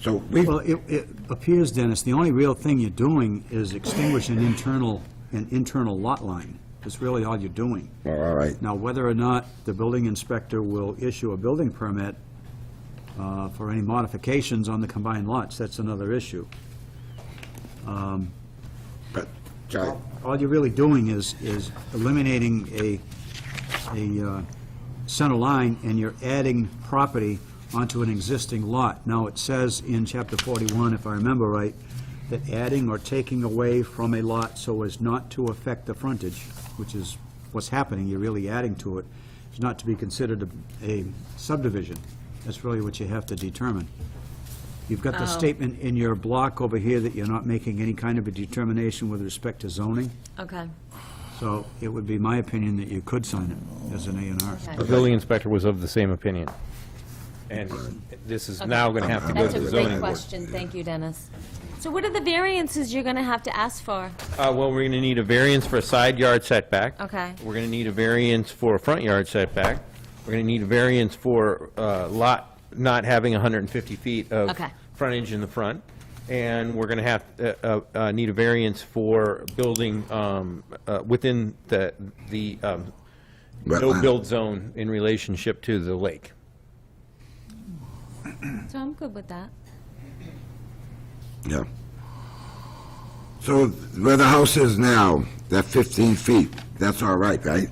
So we, Well, it, it appears, Dennis, the only real thing you're doing is extinguish an internal, an internal lot line. That's really all you're doing. oh, all right, Now, whether or not the building inspector will issue a building permit uh, for any modifications on the combined lots, that's another issue. but, Charlie, All you're really doing is, is eliminating a, a uh, center line, and you're adding property onto an existing lot. Now, it says in chapter 41, if I remember right, that adding or taking away from a lot so as not to affect the frontage, which is what's happening, you're really adding to it, is not to be considered a- a subdivision. That's really what you have to determine. You've got the statement in your block over here that you're not making any kind of a determination with respect to zoning, Okay, so it would be my opinion that you could sign it as an A and R. okay. The building inspector was of the same opinion. And this is now going to have to go That's to a the great zoning board. question, thank you, Dennis. So what are the variances you're gonna have to ask for? Uh, well, we're going to need a variance for a side yard setback. Okay. We're going to need a variance for a front yard setback. We're going to need a variance for, uh, lot not having 150 feet of Okay. frontage in the front. And we're going to have, uh, uh, uh, need a variance for building, um, uh, within the, the, um, Wetland. no-build zone in relationship to the lake. So I'm good with that. yeah. So where the house is now, that 15 feet, that's all right, right?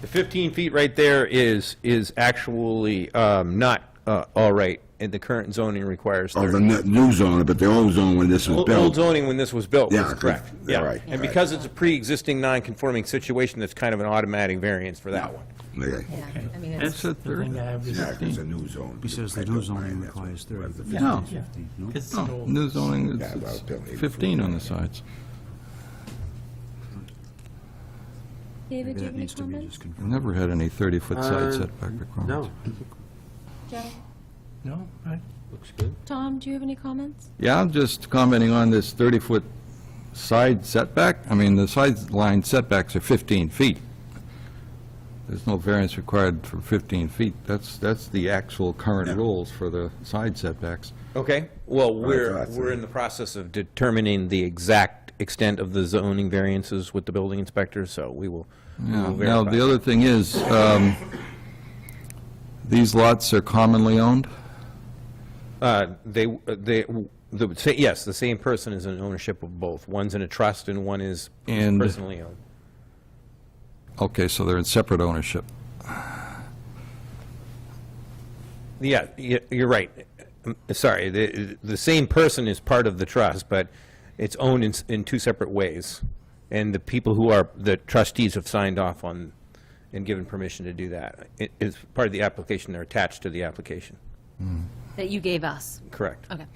The 15 feet right there is, is actually um, not uh, all right, and the current zoning requires Or the 30. n- new zone, but the old zone when this was Old built. old zoning when this was built Yeah, was 'cause- correct. yeah, Yeah. right, right. And because it's a pre-existing non-conforming situation, that's kind of an automatic variance for that one. Okay. Yeah, I mean, That's it's, the thing I have Yeah, is, 'cause it's a new zone. He says the I don't new zoning mind, that's requires what- 30, but Yeah, 15 No. is 15, no? it's Oh, new zoning, it's- well, it's built in 15 on the sides. David, do Maybe you that have any needs to be comments? just confirmed. Never had any 30-foot Uh, side setback requirements. No, Joe? No. looks good. Tom, do you have any comments? Yeah, I'm just commenting on this 30-foot side setback. I mean, the sideline setbacks are 15 feet. There's no variance required for 15 feet. That's, that's the actual current rules for the side setbacks. Okay? Well, we're, thought so. we're in the process of determining the exact extent of the zoning variances with the building inspector, so we will we Yeah. will Now, verify. the other thing is, um, these lots are commonly owned? Uh, They, they, the sa- yes, the same person is in ownership of both. One's in a trust and one is And- personally owned. Okay, so they're in separate ownership. Yeah, y- you're right. Um, Sorry, the, the same person is part of the trust, but it's owned in, s- in two separate ways. And the people who are, the trustees have signed off on and given permission to do that. It is part of the application, they're attached to the application, That you gave us, correct? okay.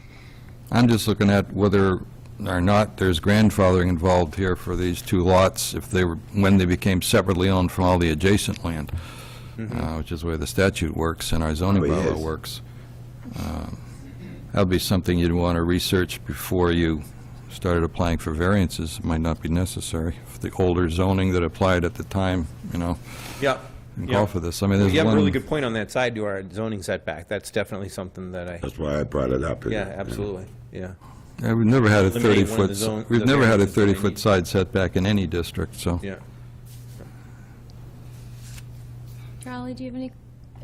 I'm just looking at whether or not there's grandfathering involved here for these two lots, if they were, when they became separately owned from all the adjacent land, Mm-hmm. uh, which is the way the statute works and our zoning Oh, yes. bylaw works. Um, That'd be something you'd want to research before you started applying for variances. It Might not be necessary. If The older zoning that applied at the time, you know, Yeah. and yeah. call for this. I mean, there's You have a really one, good point on that side to our zoning setback. That's definitely something that I, That's why I brought it up. yeah, absolutely, yeah. Yeah, we've never had a Eliminate one of the zone- 30-foot, we've the never had a variances that they 30-foot need. side setback in any district, so. Yeah. Charlie, do you have any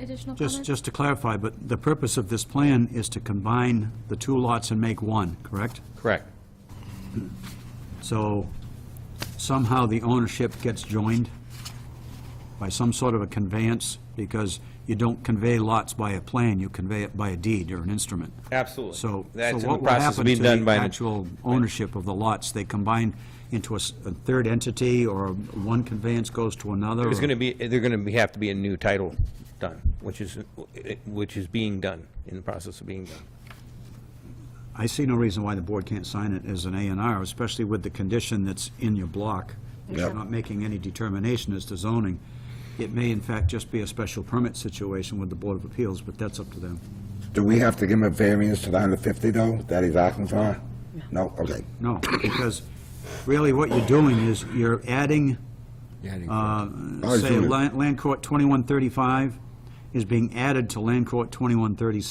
additional Just, comments? just to clarify, but the purpose of this plan is to combine the two lots and make one, correct? Correct. So somehow the ownership gets joined by some sort of a conveyance, because you don't convey lots by a plan, you convey it by a deed or an instrument. Absolutely. So, so That's in the what will process happen of to being done the by an- actual ownership of the lots? They combine into a s- a third entity, or one conveyance goes to another? There's or- going to be, they're going to be, have to be a new title done, which is, which is being done, in the process of being done. I see no reason why the board can't sign it as an A and R, especially with the condition that's in your block. You're Yep. not making any determination as to zoning. It may in fact just be a special permit situation with the Board of Appeals, but that's up to them. Do we have to give him a variance to the 150 though, that he's asking for? No, okay. No, because really what you're doing is you're adding, uh, Our say, zoning. Land Land Court 2135 is being added to Land Court 2136.